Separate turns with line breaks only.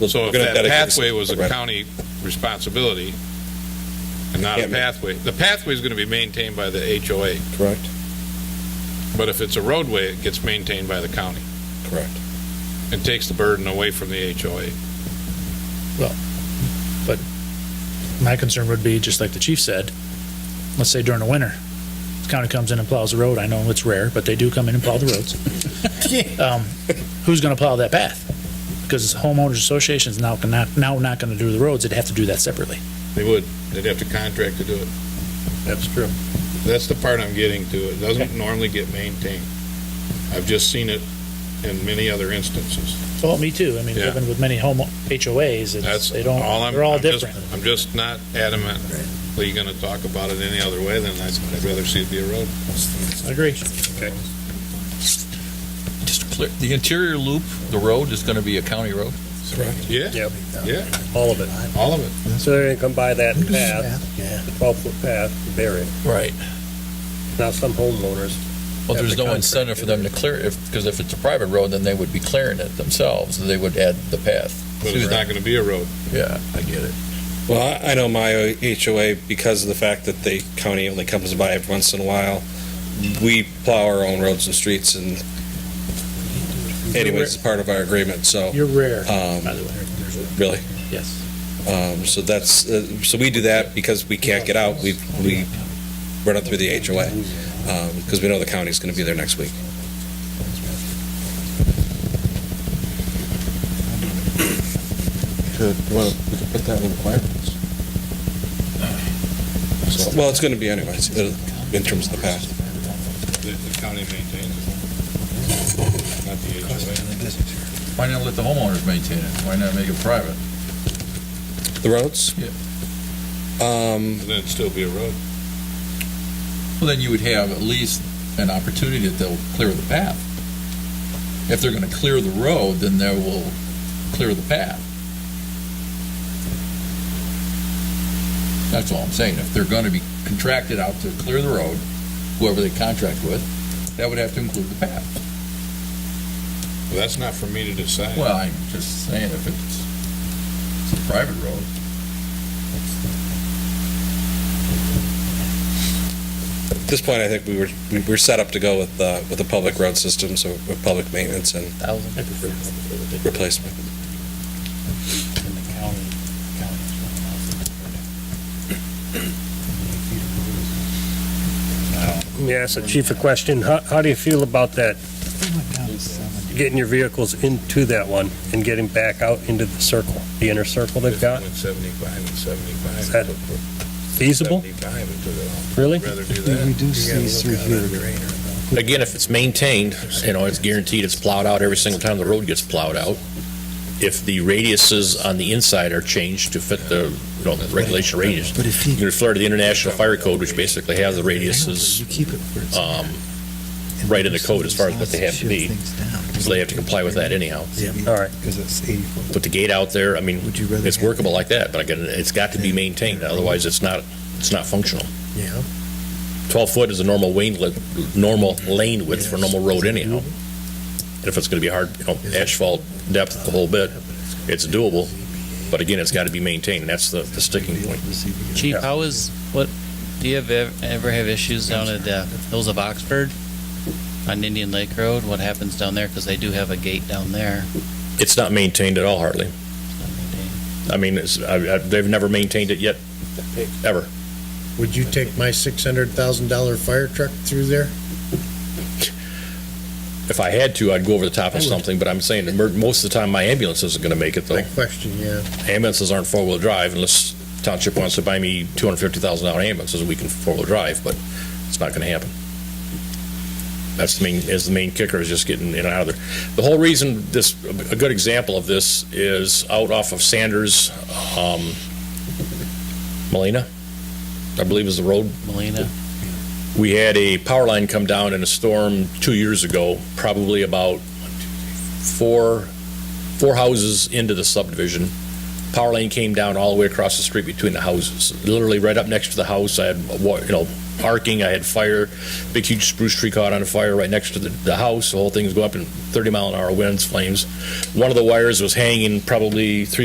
So if that pathway was a
Right.
county responsibility and not a
Can't make-
pathway, the pathway is going to be maintained by the HOA,
Correct,
but if it's a roadway, it gets maintained by the county.
correct.
It takes the burden away from the HOA.
My concern would be, just like the chief said, let's say during the winter, the county comes in and plows the road. I know it's rare, but they do come in and plow the roads. Um, Who's going to plow that path? Because homeowners associations now cannot, now not going to do the roads. They'd have to do that separately.
They would, they'd have to contract to do it. That's true. That's the part I'm getting to. It doesn't normally get maintained. I've just seen it in many other instances.
Well, me too. I mean,
Yeah.
even with many home HOAs, it's,
That's
they don't,
all I'm.
they're all
I'm just-
different.
I'm just not adamantly going to talk about it any other way than I'd I'd rather see it be a road.
I agree.
Just clear, the interior loop, the road is going to be a county road?
Yeah,
Yep,
yeah,
all of it.
all of it.
So they're gonna come by that path, the twelve-foot path, to bury it.
Right.
Now, some homeowners,
Well,
Have
there's
the
no incentive for them to clear, it because if it's a private road, then they would be clearing it themselves, and they would add the path.
But it's not going to be a road.
Yeah, I get it.
Well, I I know my HOA, because of the fact that the county only comes by every once in a while, we plow our own roads and streets and anyways, it's part of our agreement, so,
You're rare,
um,
by the way.
really.
Yes.
Um, so that's, uh, so we do that because we can't get out, we, we run it through the HOA, um, because we know the county's gonna be there next week. So- Well, it's gonna be anyways, uh, in terms of the path.
The the county maintains it. Not the HOA.
Why not let the homeowners maintain it? Why not make it private?
The roads?
Yeah.
Um,
Then it'd still be a road.
Well, then you would have at least an opportunity that they'll clear the path. If they're going to clear the road, then they will clear the path. That's all I'm saying. If they're going to be contracted out to clear the road, whoever they contract with, that would have to include the path.
Well, That's not for me to decide.
Well, I'm just saying, if it's, it's a private road,
At this point, I think we were, we were set up to go with, uh, with the public road system, so with public maintenance and replacement.
let me ask the chief a question. How, how do you feel about that, getting your vehicles into that one and getting back out into the circle, the inner circle they've got?
With Seventy-five and seventy-five.
Is that Feasible?
Seventy-five and took it off.
Really?
I'd Rather do
We
that.
reduce these through here.
Again, if it's maintained, you know, it's guaranteed it's plowed out every single time the road gets plowed out. If the radiuses on the inside are changed to fit the, you know, the regulation radius,
But if
you can
you,
refer to the International Fire Code, which basically has the
you
radiuses,
keep it where it's
um,
at, and
right in the
those
code as far as what they have to
shift
be,
things down.
so they have to comply with that anyhow.
Yeah.
All right.
Because it's 80 foot.
Put the gate out there, I mean,
Would you rather?
it's
have-
workable like that, but again, it's got to be maintained, otherwise it's not, it's not functional.
Yeah.
12 foot is a normal lane, width- normal lane width for a normal road anyhow. And if it's going to be hard, you know, asphalt depth the whole bit, it's doable, but again, it's got to be maintained, that's the, the sticking point.
Chief, how is what? Do you have ev- ever have issues down at uh, Hills of Oxford on Indian Lake Road? What happens down there? Because they do have a gate down there.
It's not maintained at all hardly. I mean, it's, I, I, they've never maintained it yet, ever.
Would you take my six hundred thousand dollar fire truck through there?
If I had to, I'd go over the top of something, but I'm saying that mer- most of the time my ambulance isn't going to make it though.
My question, yeah.
ambulances aren't four-wheel drive unless township wants to buy me two hundred fifty thousand dollar ambulances, we can four-wheel drive, but it's not gonna happen. That's the main, is the main kicker, is just getting in and out of there. The whole reason this, a good example of this is out off of Sanders, um, Molina, I believe is the road
Molina,
we had a power line come down in a storm two years ago, probably about four, four houses into the subdivision. Power line came down all the way across the street between the houses, literally right up next to the house. I had, wa- you know, parking, I had fire, big huge spruce tree caught on fire right next to the, the house, the whole thing's go up in 30 mile an hour winds, flames. One of the wires was hanging probably three